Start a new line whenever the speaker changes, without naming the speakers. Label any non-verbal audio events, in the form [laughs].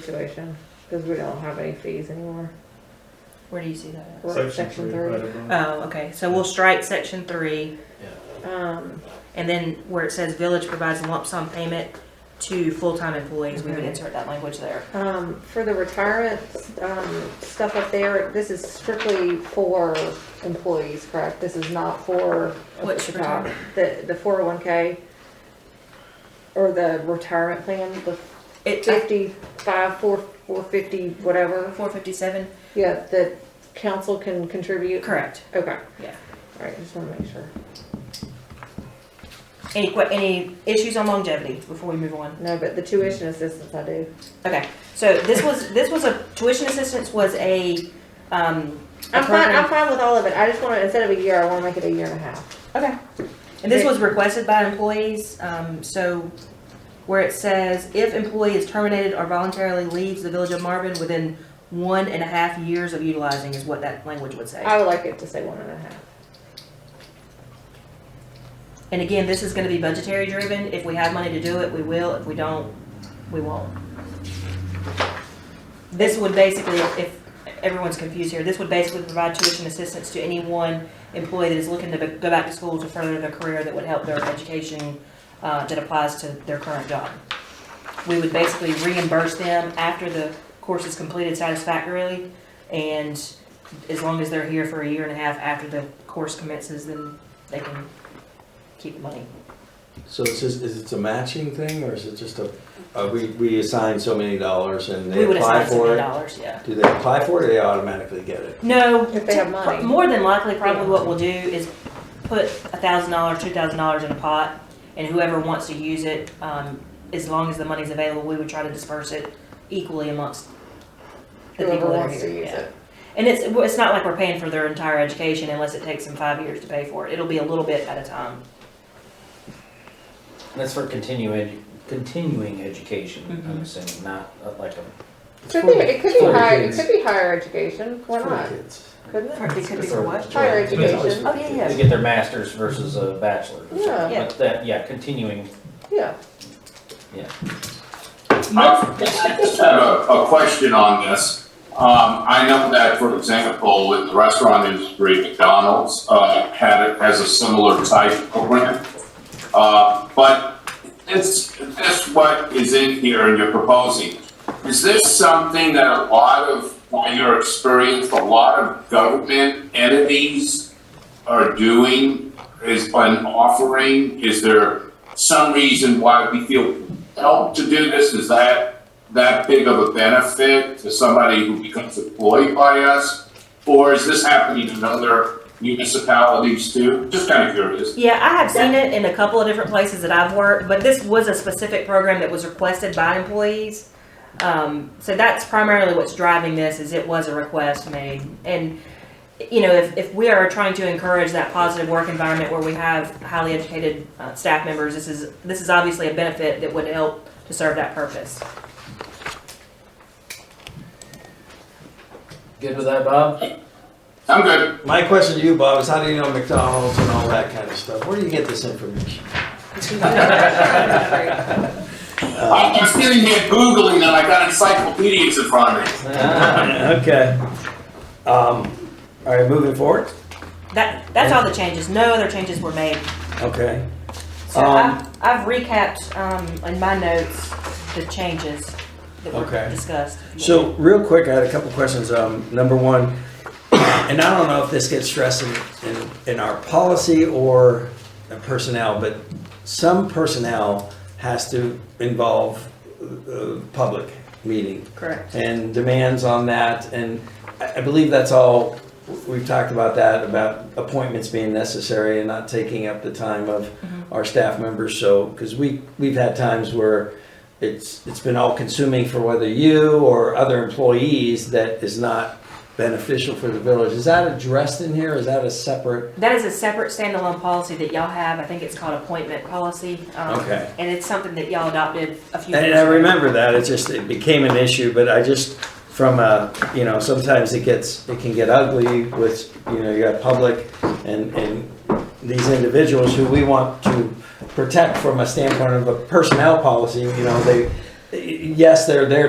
situation, cause we don't have any fees anymore.
Where do you see that?
We're at section
three, right
three.
above.
Oh, okay, so we'll strike section three,
Um,
and then where it says village provides lump sum payment to full-time employees, we would insert that language there.
um, for the retirement, um, stuff up there, this is strictly for employees, correct? This is not for.
Which retirement?
The, the four oh one K or the retirement plan, the
It,
fifty-five, four, four fifty, whatever.
four fifty-seven,
Yeah, that council can contribute?
correct.
Okay.
Yeah.
All right, just wanna make sure.
Any que, any issues on longevity before we move on?
No, but the tuition assistance I do.
Okay, so this was, this was a, tuition assistance was a, um. a
I'm fine, I'm
program-
fine with all of it. I just wanna, instead of a year, I wanna make it a year and a half.
Okay. And this was requested by employees, um, so where it says, if employee is terminated or voluntarily leaves the village of Marvin within one and a half years of utilizing is what that language would say.
I would like it to say one and a half.
And again, this is gonna be budgetary driven. If we have money to do it, we will. If we don't, we won't. This would basically, if everyone's confused here, this would basically provide tuition assistance to any one employee that is looking to go back to school to further their career that would help their education, uh, that applies to their current job. We would basically reimburse them after the course is completed satisfactorily. And as long as they're here for a year and a half after the course commences, then they can keep the money.
So it's just, is it a matching thing or is it just a, uh, we, we assign so many dollars and they
We would
apply
assign some
for it?
dollars, yeah.
Do they apply for it or they automatically get it?
No.
If they have money.
pro- More than likely, probably what we'll do is put a thousand dollars, two thousand dollars in a pot, and whoever wants to use it, um, as long as the money's available, we would try to disperse it equally amongst the
Whoever
people that are
wants to
here,
use
yeah.
it.
And it's, well, it's not like we're paying for their entire education unless it takes them five years to pay for it. It'll be a little bit at a time.
That's for continuing, continuing education,
Mhm.
I'm assuming, not uh, like a.
It's
Could
for
be,
the-
it could
it's
be
for the
higher, it
kids.
could be higher education, why
It's for the
not?
kids.
Couldn't it?
It could be for what?
Higher
It's always
education.
for
Oh,
the
yeah,
kids.
yeah.
To get their masters versus a bachelor.
Yeah.
Yeah.
But that, yeah, continuing,
Yeah.
yeah.
Uh, I just had a, a question on this. Um, I know that, for example, in the restaurant industry, McDonald's, uh, had, has a similar type program. Uh, but this, this what is in here and you're proposing, is this something that a lot of, by your experience, a lot of government entities are doing, is an offering? Is there some reason why we feel help to do this? Is that that big of a benefit to somebody who becomes employed by us? Or is this happening in other municipalities too? Just kind of curious.
Yeah, I have seen it in a couple of different places that I've worked, but this was a specific program that was requested by employees. Um, so that's primarily what's driving this is it was a request made. And, you know, if, if we are trying to encourage that positive work environment where we have highly educated uh, staff members, this is, this is obviously a benefit that would help to serve that purpose.
Good with that, Bob? [laughs]
I'm good.
My question to you, Bob, is how do you know McDonald's and all that kind of stuff? Where do you get this information?
[laughs]
I- I'm sitting here Googling and I got encyclopedias in front of me.
[clears throat] Okay. Um, all right, moving forward.
That, that's all the changes. No other changes were made.
Okay.
So
Um,
I've, I've recapped, um, in my notes, the changes that were
Okay.
discussed.
So, real quick, I had a couple questions. Um, number one, and I don't know if this gets stressed in, in, in our policy or the personnel, but some personnel has to involve uh, public meeting
Correct.
and demands on that. And I, I believe that's all we've talked about that about appointments being necessary and not taking up the time of our staff members. So because we we've had times where it's it's been all consuming for whether you or other employees that is not beneficial for the village. Is that addressed in here? Is that a separate?
That is a separate standalone policy that y'all have. I think it's called appointment policy. um,
Okay.
And it's something that y'all adopted a few.
And
years
I
ago.
remember that, it just, it became an issue, but I just, from a, you know, sometimes it gets, it can get ugly with, you know, you got public and, and these individuals who we want to protect from a standpoint of a personnel policy, you know, they, yes, they're there